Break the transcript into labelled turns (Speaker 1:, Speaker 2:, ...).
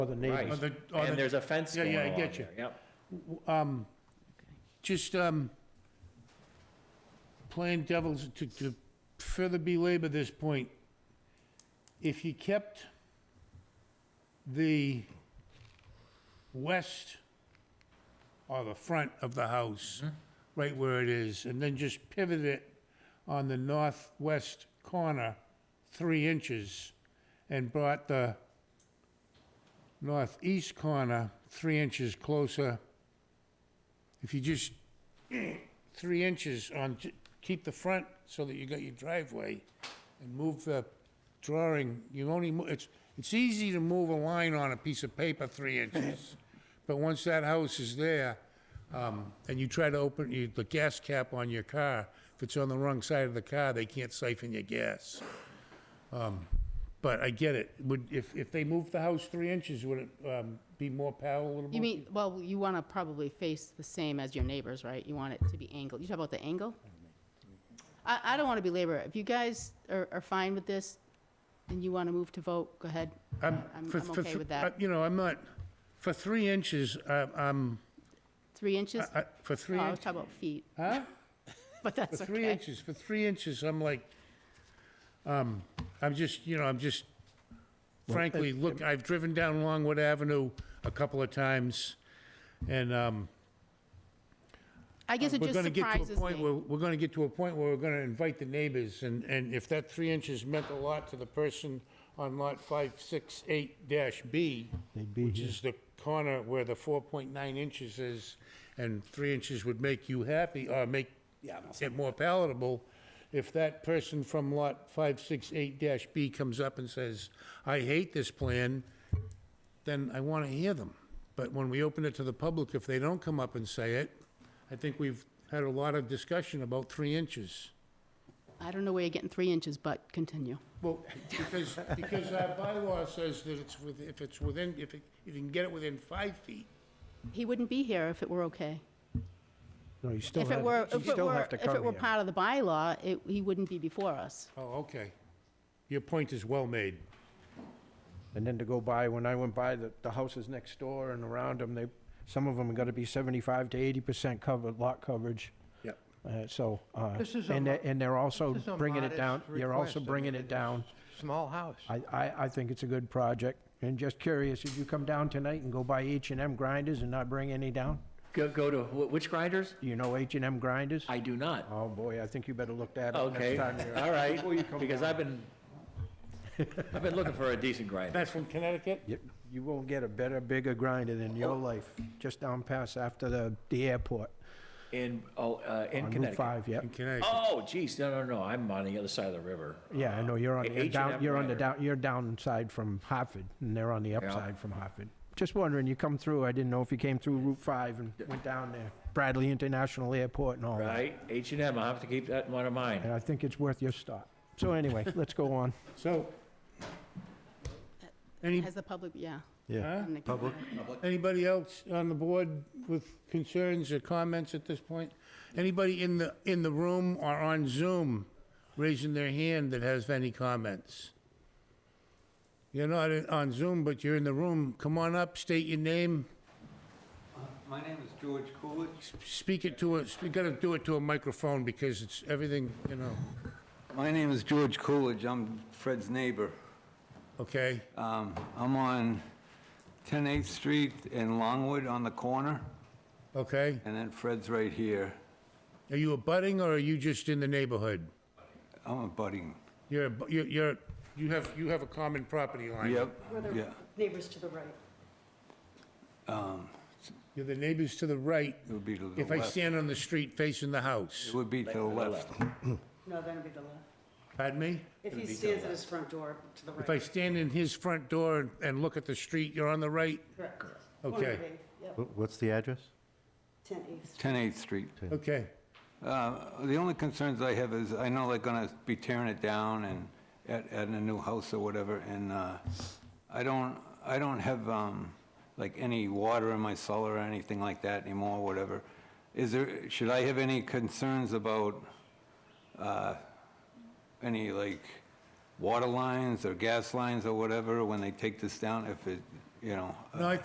Speaker 1: or the
Speaker 2: Right,
Speaker 1: neighbors.
Speaker 3: the- or the-
Speaker 2: and there's a fence
Speaker 3: Yeah,
Speaker 2: going
Speaker 3: yeah, I
Speaker 2: along
Speaker 3: get you.
Speaker 2: there, yep.
Speaker 3: um, Just, um, playing devil's, to, to further belabor this point, if you kept the west or the front of the house, right where it is, and then just pivot it on the northwest corner three inches, and brought the northeast corner three inches closer if you just, three inches on, j- keep the front so that you got your driveway and move the drawing, you only, mo- it's, it's easy to move a line on a piece of paper three inches. But once that house is there, um, and you try to open you- the gas cap on your car, if it's on the wrong side of the car, they can't siphon your gas. Um, But I get it, would, if, if they moved the house three inches, would it, um, be more palatable?
Speaker 4: You mean, well, you want to probably face the same as your neighbors, right? You want it to be angled. You talk about the angle? I, I don't want to belabor it. If you guys are, are fine with this and you want to move to vote, go ahead.
Speaker 3: I'm,
Speaker 4: I'm-
Speaker 3: for-
Speaker 4: I'm
Speaker 3: for
Speaker 4: okay
Speaker 3: thr-
Speaker 4: with
Speaker 3: uh,
Speaker 4: that.
Speaker 3: You know, I'm not, for three inches, uh, I'm,
Speaker 4: Three inches?
Speaker 3: I- I- for three,
Speaker 4: No, I was
Speaker 3: inch-
Speaker 4: talking about feet,
Speaker 3: huh?
Speaker 4: but
Speaker 3: For
Speaker 4: Oh, that's
Speaker 3: three
Speaker 4: okay.
Speaker 3: inches, for three inches, I'm like, um, I'm just, you know, I'm just frankly, look, I've driven down Longwood Avenue a couple of times, and, um,
Speaker 4: I guess it
Speaker 3: we're
Speaker 4: just
Speaker 3: gonna get to a
Speaker 4: surprises
Speaker 3: point
Speaker 4: me.
Speaker 3: where, we're gonna get to a point where we're gonna invite the neighbors, and, and if that three inches meant a lot to the person on lot five, six, eight dash B,
Speaker 1: They'd be
Speaker 3: which
Speaker 1: here.
Speaker 3: is the corner where the four point nine inches is, and three inches would make you happy, or make it more palatable, if that person from lot five, six, eight dash B comes up and says, I hate this plan, then I want to hear them. But when we open it to the public, if they don't come up and say it, I think we've had a lot of discussion about three inches.
Speaker 4: I don't know where you're getting three inches, but continue.
Speaker 3: Well, because, because our bylaw says that it's with, if it's within, if it, if you can get it within five feet.
Speaker 4: He wouldn't be here if it were okay.
Speaker 1: No, you still
Speaker 4: If it
Speaker 1: have,
Speaker 4: were,
Speaker 1: you
Speaker 4: if it
Speaker 1: still
Speaker 4: were,
Speaker 1: have to
Speaker 4: if it
Speaker 1: come
Speaker 4: were
Speaker 1: here.
Speaker 4: part of the bylaw, it, he wouldn't be before us.
Speaker 3: Oh, okay. Your point is well made.
Speaker 1: And then to go by, when I went by, the, the houses next door and around them, they, some of them are gonna be seventy-five to eighty percent covered, lot coverage.
Speaker 3: Yep.
Speaker 1: Uh, so, uh,
Speaker 5: This is a
Speaker 1: and,
Speaker 5: mo-
Speaker 1: they- and they're also
Speaker 5: This is a
Speaker 1: bringing it
Speaker 5: modest
Speaker 1: down, you're also
Speaker 5: request. I
Speaker 1: bringing
Speaker 5: mean,
Speaker 1: it
Speaker 5: it's a
Speaker 1: down.
Speaker 5: s- Small house.
Speaker 1: I, I, I think it's a good project. And just curious, did you come down tonight and go by H and M grinders and not bring any down?
Speaker 2: Go, go to, wh- which grinders?
Speaker 1: Do you know H and M grinders?
Speaker 2: I do not.
Speaker 1: Oh, boy, I think you better look that up Oh, next
Speaker 2: Okay,
Speaker 1: time you're.
Speaker 2: all right,
Speaker 1: before you come
Speaker 2: because
Speaker 1: down.
Speaker 2: I've been, I've been looking for a decent grinder.
Speaker 3: That's from Connecticut?
Speaker 1: You- You won't get a better, bigger grinder than
Speaker 2: Oh.
Speaker 1: your life, just down past after the, the airport.
Speaker 2: In, oh, uh, in
Speaker 1: on Route
Speaker 2: Connecticut.
Speaker 1: five, yep.
Speaker 3: In Connecticut.
Speaker 2: Oh, geez, no, no, no, I'm on the other side of the river.
Speaker 1: Yeah, I know, you're on,
Speaker 2: Uh,
Speaker 1: the down,
Speaker 2: H&M
Speaker 1: you're on the
Speaker 2: grinder.
Speaker 1: down, you're downside from Hartford, and they're on the upside from Hartford. Just wondering, you come through, I didn't know if you came through Route five and went down there, Bradley International Airport and all that.
Speaker 2: Right, H and M, I'll have to keep that in mind
Speaker 1: And
Speaker 2: of mine.
Speaker 1: I think it's worth your stop. So anyway, let's go on.
Speaker 3: So, any,
Speaker 4: As the public, yeah.
Speaker 1: Yeah.
Speaker 3: huh?
Speaker 4: I'm not gonna-
Speaker 3: Anybody else on the board with concerns or comments at this point? Anybody in the, in the room or on Zoom raising their hand that has any comments? You're not in- on Zoom, but you're in the room. Come on up, state your name,
Speaker 6: My name is George Coolidge.
Speaker 3: speak it to us. You gotta do it to a microphone because it's everything, you know,
Speaker 6: My name is George Coolidge. I'm Fred's neighbor.
Speaker 3: okay?
Speaker 6: Um, I'm on 10 8th Street in Longwood on the corner,
Speaker 3: Okay?
Speaker 6: and then Fred's right here.
Speaker 3: Are you abutting or are you just in the neighborhood?
Speaker 6: I'm a budding.
Speaker 3: You're, abu- you're- you're, you have, you have a common property line.
Speaker 6: Yep,
Speaker 7: We're the
Speaker 6: yeah.
Speaker 7: neighbors to the right.
Speaker 3: You're the neighbors to the right.
Speaker 6: It would be to the
Speaker 3: If I
Speaker 6: left. It
Speaker 3: stand on the street facing the house.
Speaker 6: would be to the left.
Speaker 7: No, that'd be the left.
Speaker 3: Pardon me?
Speaker 7: If he stands at his front door to the right.
Speaker 3: If I stand in his front door and- and look at the street, you're on the right?
Speaker 7: Correct.
Speaker 3: Okay.
Speaker 8: Wh- What's the address?
Speaker 7: 10 East.
Speaker 6: 10 8th Street.
Speaker 3: Okay.
Speaker 6: Uh, The only concerns I have is, I know they're gonna be tearing it down and add, adding a new house or whatever, and uh, I don't, I don't have, um, like, any water in my cellar or anything like that anymore, whatever. Is there, should I have any concerns about uh, any, like, water lines or gas lines or whatever when they take this down, if it
Speaker 9: you know.
Speaker 6: No, I